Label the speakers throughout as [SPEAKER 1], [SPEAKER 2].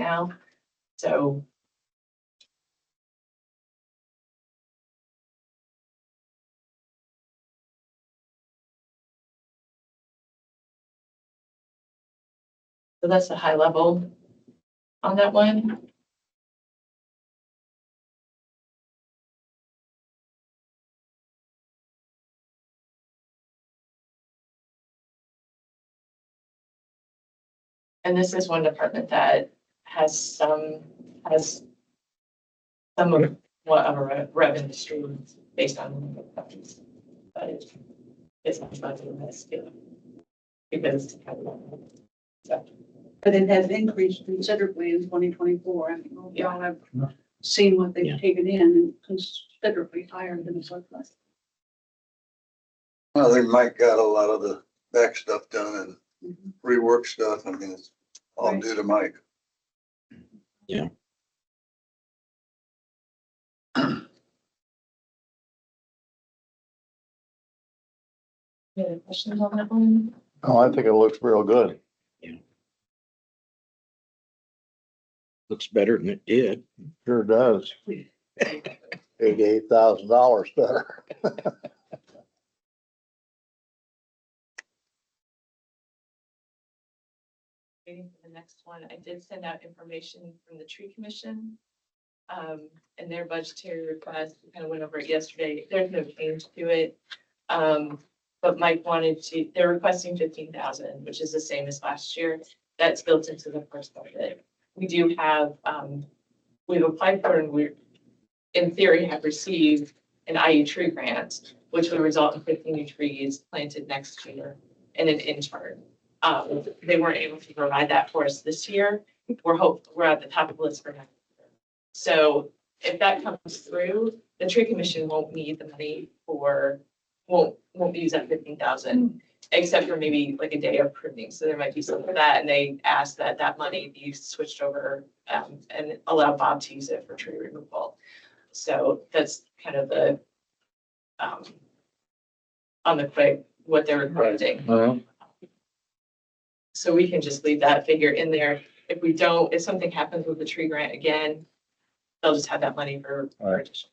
[SPEAKER 1] now, so. So that's the high level on that one. And this is one department that has some, has some of what of a re- revenue stream based on countries. But it's, it's not about the best, you know, because. so,
[SPEAKER 2] But it has increased considerably in twenty twenty-four. I think y'all have seen what
[SPEAKER 3] Yeah.
[SPEAKER 2] they've taken in and considerably higher than surplus.
[SPEAKER 4] I think Mike got a lot of the back stuff done and
[SPEAKER 2] Mhm.
[SPEAKER 4] rework stuff. I mean, it's all
[SPEAKER 2] Right.
[SPEAKER 4] due to Mike.
[SPEAKER 1] Any questions on that one?
[SPEAKER 5] Oh, I think it looks real good.
[SPEAKER 3] Looks better than it did.
[SPEAKER 5] Sure does. Eighty-eight thousand dollars better.
[SPEAKER 1] Waiting for the next one. I did send out information from the tree commission. Um, and their budgetary request, we kind of went over it yesterday. There's no change to it. Um, but Mike wanted to, they're requesting fifteen thousand, which is the same as last year. That's built into the first budget. We do have, um, we've applied for and we're, in theory, have received an IU tree grant, which would result in fifteen new trees planted next year and an intern um, they weren't able to provide that for us this year. We're hope, we're at the top of the list for next year. So if that comes through, the tree commission won't need the money for, won't, won't use that fifteen thousand, except for maybe like a day of pruning. So there might be some for that, and they asked that that money be switched over, um, and allow Bob to use it for tree removal. So that's kind of the, um, on the quick, what they're requesting. So we can just leave that figure in there. If we don't, if something happens with the tree grant again, they'll just have that money for. for
[SPEAKER 5] Right.
[SPEAKER 1] additional.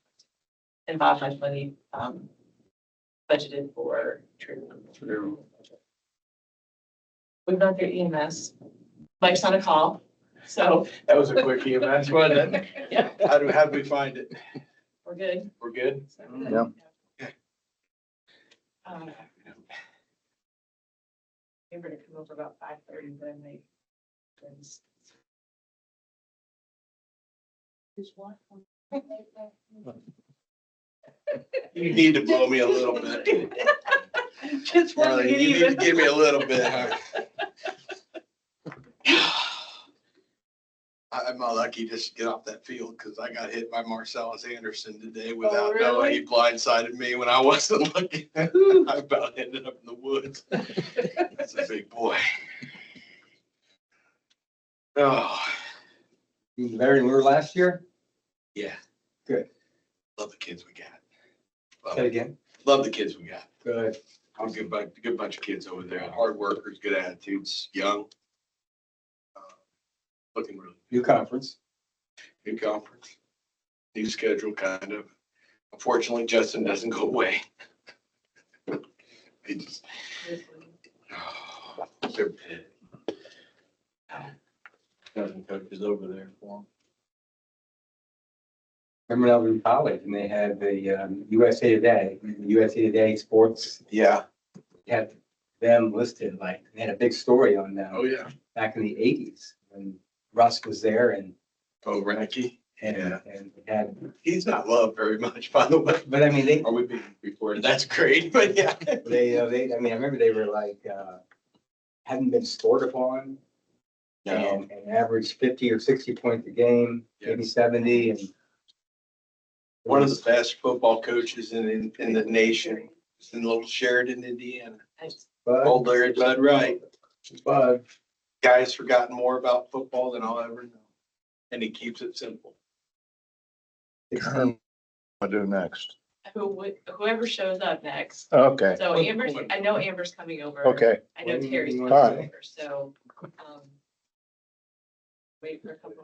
[SPEAKER 1] And Bob has money, um, budgeted for tree. removal.
[SPEAKER 4] True.
[SPEAKER 1] We've gone through EMS. Mike's on a call, so
[SPEAKER 6] That was a quick EMS, wasn't it?
[SPEAKER 1] Yeah.
[SPEAKER 6] How do, how do we find it?
[SPEAKER 1] we're good.
[SPEAKER 6] We're good?
[SPEAKER 5] Mm, Yeah.
[SPEAKER 1] Um, They were to come over about five thirty, but I might.
[SPEAKER 6] You need to blow me a little bit.
[SPEAKER 2] Just
[SPEAKER 4] Uh,
[SPEAKER 2] wanted to get
[SPEAKER 4] You need to
[SPEAKER 2] even.
[SPEAKER 4] give me a little bit. huh? I- I'm not lucky just to get off that field because I got hit by Marcellus Anderson today without knowing. He blindsided me when I wasn't looking. I about ended up in the woods. That's a big boy. Oh,
[SPEAKER 7] You was Larry Lure last year?
[SPEAKER 4] yeah.
[SPEAKER 7] Good.
[SPEAKER 4] Love the kids we got.
[SPEAKER 7] Say
[SPEAKER 4] Love-
[SPEAKER 7] again.
[SPEAKER 4] Love the kids we got.
[SPEAKER 7] Good.
[SPEAKER 4] I'm a good bunch, good bunch of kids over there, hard workers, good attitudes, young. Uh, Looking really,
[SPEAKER 7] New conference.
[SPEAKER 4] new conference, new schedule, kind of. Unfortunately, Justin doesn't go away. He just, oh, they're bad.
[SPEAKER 6] Dozen coaches over there for
[SPEAKER 7] Remember when I was in college and they had the um, USA Today, USA Today Sports
[SPEAKER 6] them. Yeah.
[SPEAKER 7] had them listed, like, they had a big story on
[SPEAKER 4] Oh,
[SPEAKER 7] them
[SPEAKER 4] yeah.
[SPEAKER 7] back in the eighties when Russ was there and,
[SPEAKER 4] Oh, Ranky,
[SPEAKER 7] and,
[SPEAKER 4] Yeah.
[SPEAKER 7] and had,
[SPEAKER 4] he's not loved very much, by the way.
[SPEAKER 7] but I mean, they,
[SPEAKER 4] Are we being recorded? That's great, but yeah.
[SPEAKER 7] they, uh, they, I mean, I remember they were like, uh, hadn't been scored upon.
[SPEAKER 4] No,
[SPEAKER 7] and, and averaged fifty or sixty points a game, maybe seventy and.
[SPEAKER 4] one of the best football coaches in, in, in the nation, is in Little Sheridan, Indiana.
[SPEAKER 7] Bud,
[SPEAKER 4] Old Larry Bud Wright.
[SPEAKER 7] Bud,
[SPEAKER 4] Guy has forgotten more about football than I'll ever know. And he keeps it simple.
[SPEAKER 7] sixteen,
[SPEAKER 5] What do next?
[SPEAKER 1] Who, would- whoever shows up next.
[SPEAKER 5] Okay,
[SPEAKER 1] So Amber's, I know Amber's coming over.
[SPEAKER 5] okay.
[SPEAKER 1] I know Terry's.
[SPEAKER 7] All
[SPEAKER 5] right.
[SPEAKER 1] So, um, wait for a couple